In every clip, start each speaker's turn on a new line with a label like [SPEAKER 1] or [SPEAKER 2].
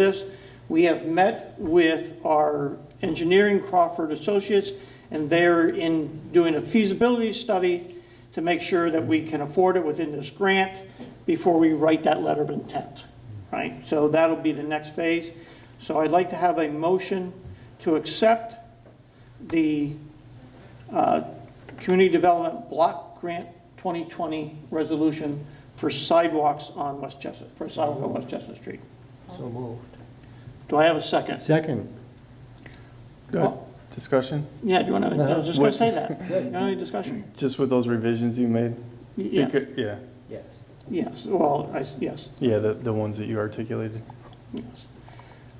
[SPEAKER 1] this. We have met with our engineering Crawford Associates, and they're in doing a feasibility study to make sure that we can afford it within this grant before we write that letter of intent, right? So that'll be the next phase. So I'd like to have a motion to accept the uh, Community Development Block Grant 2020 resolution for sidewalks on West Chestnut, for sidewalk on West Chestnut Street.
[SPEAKER 2] So moved.
[SPEAKER 1] Do I have a second?
[SPEAKER 2] Second.
[SPEAKER 3] Good. Discussion?
[SPEAKER 1] Oh, Yeah, do you want to, I was just going to say that. You want Any discussion?
[SPEAKER 3] Just with those revisions you made? You
[SPEAKER 1] Yes,
[SPEAKER 3] could- Yeah,
[SPEAKER 2] Yes.
[SPEAKER 1] yes, well, I s yes,
[SPEAKER 3] yeah, the, the ones that you articulated.
[SPEAKER 1] yes.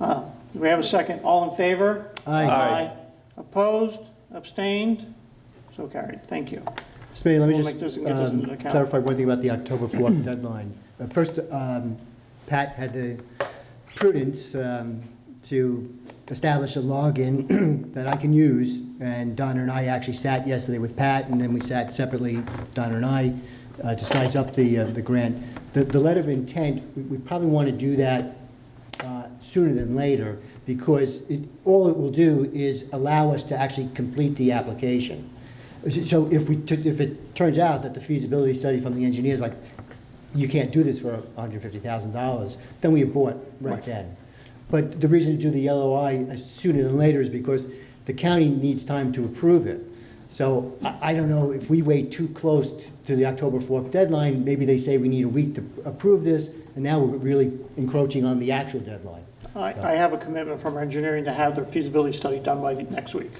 [SPEAKER 1] Uh, Do we have a second? All in favor?
[SPEAKER 2] Aye.
[SPEAKER 1] Opposed, abstained, so carried. Thank you.
[SPEAKER 2] Mr. Mayor, let me
[SPEAKER 1] We'll make this
[SPEAKER 2] just
[SPEAKER 1] and get this
[SPEAKER 2] um,
[SPEAKER 1] into account.
[SPEAKER 2] clarify one thing about the October 4th deadline. Uh, First, um, Pat had the prudence um, to establish a login that I can use, and Donna and I actually sat yesterday with Pat, and then we sat separately, Donna and I, uh, to size up the, uh, the grant. The, the letter of intent, we- we probably want to do that uh, sooner than later, because it, all it will do is allow us to actually complete the application. So if we, took- if it turns out that the feasibility study from the engineers, like, you can't do this for $150,000, then we abort right then. But the reason to do the LOI as uh, sooner than later is because the county needs time to approve it. So I, I don't know if we wait too close t- to the October 4th deadline, maybe they say we need a week to approve this, and now we're really encroaching on the actual deadline.
[SPEAKER 1] I, I have a commitment from our engineering to have their feasibility study done by next week.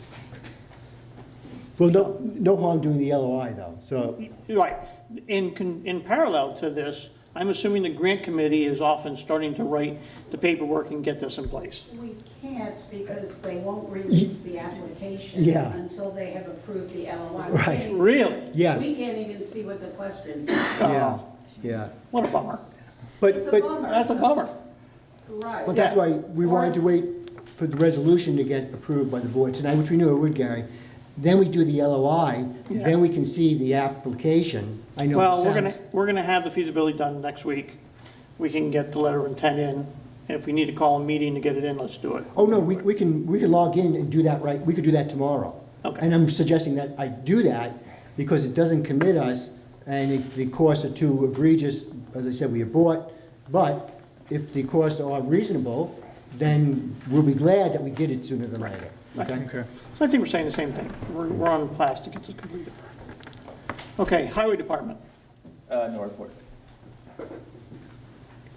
[SPEAKER 2] Well, no, no harm doing the LOI though, so,
[SPEAKER 1] Right. In, con- in parallel to this, I'm assuming the grant committee is often starting to write the paperwork and get this in place.
[SPEAKER 4] We can't because they won't release the application
[SPEAKER 2] Yeah.
[SPEAKER 4] until they have approved the LOI. We
[SPEAKER 2] Right.
[SPEAKER 4] can't-
[SPEAKER 1] Really? Oh,
[SPEAKER 2] yes.
[SPEAKER 4] We can't even see what the questions are.
[SPEAKER 2] Yeah, yeah.
[SPEAKER 1] What a bummer.
[SPEAKER 4] It's
[SPEAKER 2] But,
[SPEAKER 4] a
[SPEAKER 2] but,
[SPEAKER 4] bummer.
[SPEAKER 1] That's a bummer.
[SPEAKER 2] but
[SPEAKER 4] Right.
[SPEAKER 2] that's why we wanted to wait for the resolution to get approved by the board tonight, which we knew it would, Gary. Then we do the LOI,
[SPEAKER 1] Yeah.
[SPEAKER 2] then we can see the application. I know it
[SPEAKER 1] Well, we're gonna,
[SPEAKER 2] sounds-
[SPEAKER 1] we're gonna have the feasibility done next week. We can get the letter of intent in. If we need to call a meeting to get it in, let's do it.
[SPEAKER 2] Oh, no, we, we can, we can log in and do that right, we could do that tomorrow.
[SPEAKER 1] Okay.
[SPEAKER 2] And I'm suggesting that I do that because it doesn't commit us and if the costs are too egregious, as I said, we abort. But if the costs are reasonable, then we'll be glad that we did it sooner than later. Okay?
[SPEAKER 3] Okay.
[SPEAKER 1] I think we're saying the same thing. We're, we're on plastic to get this completed. Okay, highway department,
[SPEAKER 5] Uh, no report.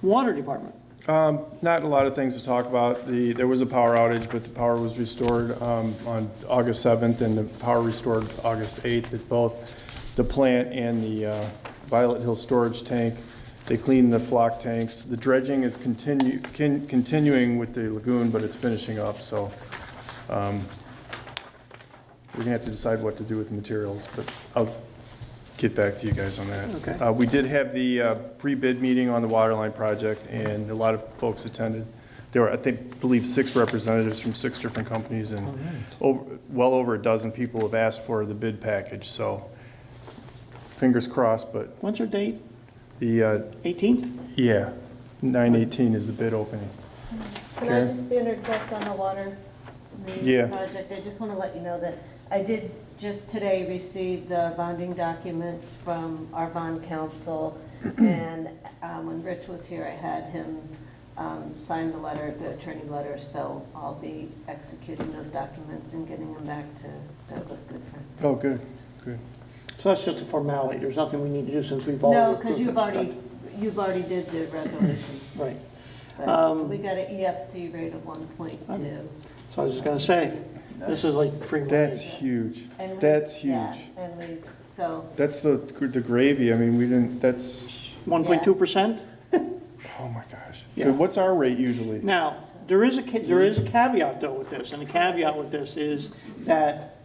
[SPEAKER 1] water department.
[SPEAKER 3] Um, not a lot of things to talk about. The, there was a power outage, but the power was restored, um, on August 7th and the power restored August 8th at both the plant and the, uh, Violet Hill Storage Tank. They cleaned the flock tanks. The dredging is continue, con- continuing with the lagoon, but it's finishing up, so, um, we're gonna have to decide what to do with the materials, but I'll get back to you guys on that.
[SPEAKER 1] Okay.
[SPEAKER 3] Uh, We did have the uh, pre-bid meeting on the water line project, and a lot of folks attended. There were, I think, believe, six representatives from six different companies, and over- well over a dozen people have asked for the bid package, so fingers crossed, but
[SPEAKER 1] What's our date?
[SPEAKER 3] the, uh,
[SPEAKER 1] Eighteenth?
[SPEAKER 3] yeah, 9/18 is the bid opening.
[SPEAKER 6] Can I
[SPEAKER 3] Okay.
[SPEAKER 6] just interject on the water main
[SPEAKER 3] Yeah.
[SPEAKER 6] project? I just want to let you know that I did just today receive the bonding documents from our bond council. And um, when Rich was here, I had him um, sign the letter, the attorney letter. So I'll be executing those documents and getting them back to Douglas Goodfriend.
[SPEAKER 3] Oh, good, good.
[SPEAKER 1] So that's just a formality. There's nothing we need to do since we've already
[SPEAKER 6] No,
[SPEAKER 1] approved
[SPEAKER 6] because
[SPEAKER 1] it.
[SPEAKER 6] you've already, you've already did the resolution.
[SPEAKER 1] Right.
[SPEAKER 3] Um,
[SPEAKER 6] But we got an EFC rate of 1.2.
[SPEAKER 1] So I was just gonna say, this is like free money.
[SPEAKER 3] That's huge.
[SPEAKER 6] And we-
[SPEAKER 3] That's
[SPEAKER 6] yeah,
[SPEAKER 3] huge.
[SPEAKER 6] And we, so,
[SPEAKER 3] That's the, the gravy, I mean, we didn't, that's,
[SPEAKER 1] One point two percent?
[SPEAKER 3] oh my gosh.
[SPEAKER 1] Yeah.
[SPEAKER 3] What's our rate usually?
[SPEAKER 1] Now, there is a, ca- there is a caveat though with this, and the caveat with this is that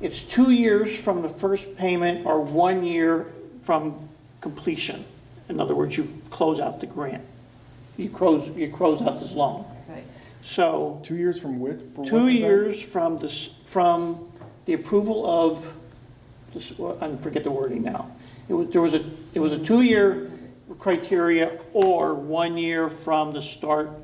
[SPEAKER 1] it's two years from the first payment or one year from completion. In other words, you close out the grant. You close, you close out this loan.
[SPEAKER 6] right.
[SPEAKER 1] So
[SPEAKER 3] Two years from which? for what
[SPEAKER 1] two
[SPEAKER 3] event?
[SPEAKER 1] years from this, from the approval of, this- I forget the wording now. It was, there was a, it was a two-year criteria or one year from the start